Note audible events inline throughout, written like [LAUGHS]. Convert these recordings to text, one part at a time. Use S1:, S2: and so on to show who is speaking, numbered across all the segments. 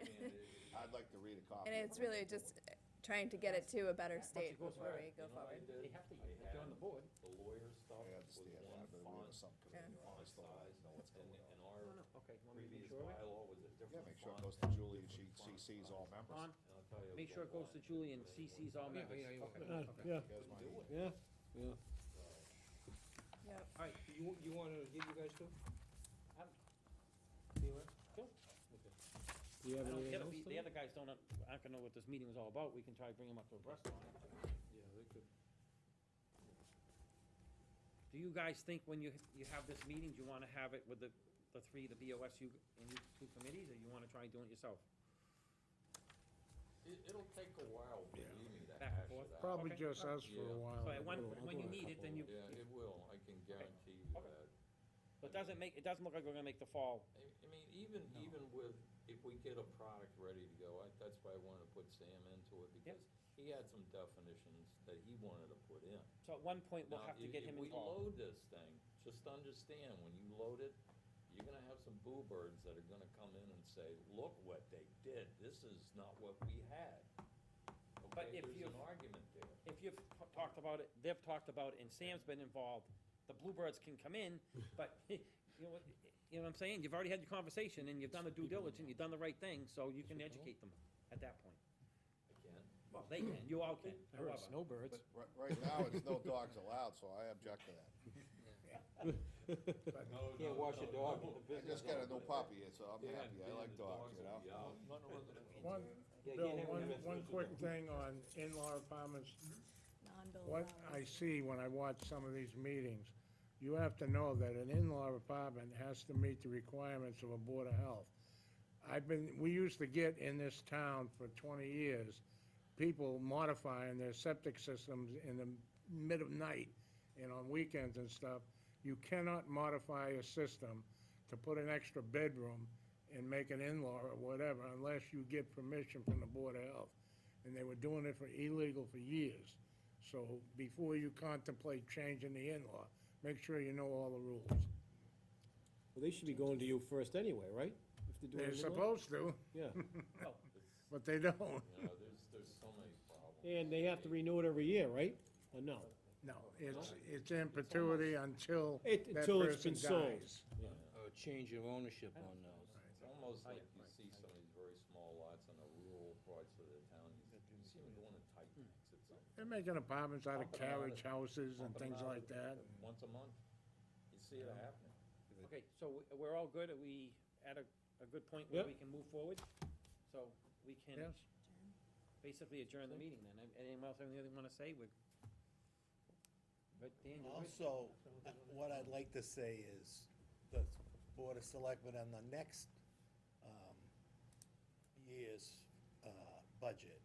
S1: [LAUGHS]
S2: copy.
S3: And it's really just trying to get it to a better state
S4: goes
S3: before
S4: right,
S3: we go
S4: you know, I
S3: forward.
S4: did-
S1: They have to,
S4: I
S1: if they're on the
S4: had
S1: board.
S4: The lawyer stuff
S2: I
S4: was
S2: understand
S4: one
S2: that, but we have
S4: font,
S2: some committee on
S4: font
S2: this, though, I
S4: size,
S2: know what's
S4: and,
S2: going on.
S4: and our
S1: Okay, you want me to make
S4: previous
S1: sure of it?
S4: bylaw was a different font.
S2: Yeah, make sure it goes to Julie, and she CCs all members.
S1: Don,
S4: And I'll tell you
S1: make sure it
S4: what,
S1: goes to Julie and CC's all members.
S5: Uh, Yeah,
S2: You guys mind?
S5: yeah,
S3: Yep.
S1: All right,
S6: You, you wanna give you guys two?
S1: Um,
S6: Taylor?
S1: Sure.
S6: Okay.
S5: do you
S1: I
S5: have
S1: don't-
S5: anything
S1: the
S5: else?
S1: other- the other guys don't, know- aren't gonna know what this meeting was all about, we can try to bring them up to abreast on it.
S6: Yeah, they could.
S1: Do you guys think when you, you have this meeting, do you wanna have it with the, the three, the BOSU and you two committees, or you wanna try and do it yourself?
S4: It, it'll take a while, believe me, to
S1: Back and
S4: hash
S1: forth.
S4: it out.
S5: Probably
S1: Okay.
S5: just us for
S4: Yeah.
S5: a while.
S1: So at one,
S5: We'll-
S1: when you
S5: we'll-
S1: need it, then you,
S4: Yeah, it will, I can guarantee you
S1: Okay.
S4: that.
S1: but doesn't make, it doesn't look like we're gonna make the fall.
S4: I, I mean, even, even with, if we get a product ready to go, I, that's why I wanted to put Sam into it, because he had some definitions that he wanted to put in.
S1: So at one point, we'll
S4: Now,
S1: have to
S4: if-
S1: get him
S4: If we
S1: involved.
S4: load this thing, just understand, when you load it, you're gonna have some boo birds that are gonna come in and say, look what they did, this is not what we had.
S1: But
S4: Okay,
S1: if
S4: there's
S1: you-
S4: an argument there.
S1: If you've t- talked about it, they've talked about it, and Sam's been involved, the Bluebirds can come in, but, [LAUGHS] you know what, you know what I'm saying? You've already had your conversation, and you've done the due diligence, you've done the right thing, so you can educate them at that point.
S4: Again,
S1: Well, they can, you all can,
S5: I heard
S6: uh,
S1: however.
S5: snowbirds.
S2: Right, right now, it's no dogs allowed, so I object to that.
S6: [LAUGHS] Can't wash a dog in the
S2: I
S6: business.
S2: just got a new
S6: zone.
S2: puppy, so I'm
S4: yeah,
S2: happy, I
S4: man,
S2: like
S4: the
S2: dogs, you
S4: will
S2: know?
S4: be out. No, no, [LAUGHS] no, no, no.
S5: One,
S6: Yeah, you
S5: Bill,
S6: can't have
S5: one,
S6: them in the
S5: one
S6: business
S5: quick
S6: zone.
S5: thing on in-law apartments.
S3: Non-bill
S5: What I see when I watch some of these meetings, you have to know that an in-law apartment has to meet the requirements of a Board of Health. I've been, we used to get in this town for twenty years, people modifying their septic systems in the mid of night and on weekends and stuff. You cannot modify a system to put an extra bedroom and make an in-law or whatever unless you get permission from the Board of Health. And they were doing it for illegal for years. So before you contemplate changing the in-law, make sure you know all the rules.
S7: Well, they should be going to you first anyway, right? If they're doing
S5: They're
S7: it alone.
S5: supposed to, [LAUGHS]
S7: Yeah, Oh,
S5: but they don't.
S4: You know, there's, there's so many problems.
S7: and they have to renew it every year, right? Or no?
S5: No, it's, it's in perpetuity until
S7: It-
S5: that
S7: until it's
S5: person
S7: been sold.
S5: dies.
S6: Oh, change of ownership on those.
S4: It's almost like you see some of these very small lots in the rural parts of the town, you you see them going to tight
S1: Hmm.
S4: tanks, it's like
S5: They're making apartments out of
S4: Up and out of-
S5: carriage houses and
S4: pumping
S5: things
S4: out
S5: like that.
S4: once a month. You see it happening.
S1: Okay, so we- we're all good, are we at a, a good point where we can move forward? So we can
S5: Yes.
S1: basically adjourn the meeting then, An- anyone else, have anything wanna say, we But Dan, you're good?
S8: Also,
S5: [LAUGHS]
S8: uh, what I'd like to say is, the Board of Selectmen on the next um, year's uh, budget,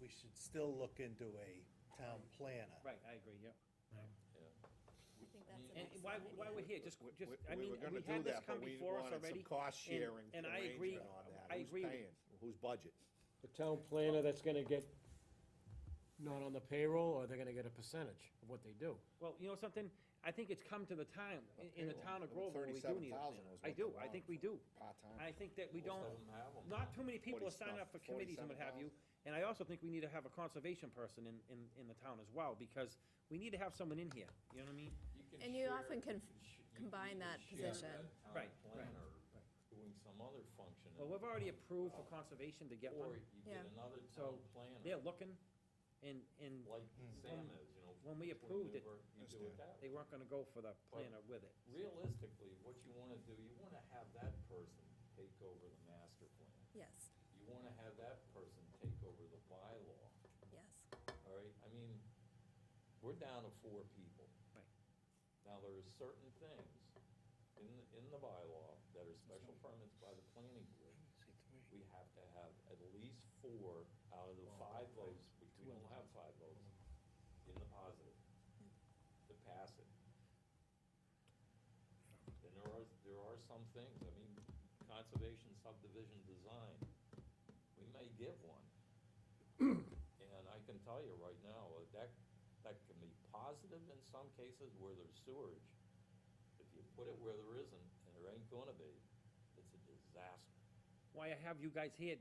S8: we should still look into a town planner.
S1: right, I agree, yeah.
S4: that's
S1: And why, why we're here, just, just, I
S2: We
S1: mean,
S2: were
S1: we
S2: gonna do
S1: had this
S2: that,
S1: come
S2: but we
S1: before us
S2: wanted some
S1: already.
S2: cost
S1: and-
S2: sharing
S1: and I agree-
S2: arrangement on that.
S1: I
S2: Who's
S1: agree with-
S2: paying? Whose budget?
S7: The town planner that's gonna get not on the payroll, or they're gonna get a percentage of what they do.
S1: Well, you know something, I think it's come to the time, in- in the town of Groveland, where we do need a plan.
S2: $37,000 was what they
S1: I do, I
S2: wanted
S1: think we
S2: for
S1: do.
S2: part-time.
S1: I think that we
S4: Most
S1: don't,
S4: of 'em have 'em.
S1: not too many people are
S2: Forty
S1: signing up for
S2: stuff-
S1: committees and what have you. And I also think we need to have a conservation person in, in, in the town as well, because we need to have someone in here, you know what I mean?
S4: can
S3: And you
S4: share-
S3: often can
S4: sh- you- you
S3: combine
S4: can
S3: that
S4: share a
S3: position.
S4: town
S1: Right, right,
S4: planner Doing some other function.
S1: Well, we've already approved for conservation to get
S4: Or
S1: one,
S4: you
S3: Yeah.
S4: get another town
S1: So, they're
S4: planner,
S1: looking, and, and
S4: like Sam is, you know.
S1: when we
S4: Twin
S1: approved it,
S4: River, You do it that way.
S1: they weren't gonna go for the planner with it.
S4: Realistically, what you wanna do, you wanna have that person take over the master plan.
S3: Yes,
S4: You wanna have that person take over the bylaw,
S3: yes.
S4: all right? I mean, we're down to four people.
S1: Right.
S4: Now, there are certain things in, the- in the bylaw that are special permits by the planning board. We have to have at least four out of the five votes, which we don't have five votes, in the positive to pass it. And there are, there are some things, I mean, conservation subdivision design, we may get one. And I can tell you right now, uh, that, that can be positive in some cases where there's sewerage. If you put it where there isn't, and there ain't gonna be, it's a disaster.
S1: Why I have you guys here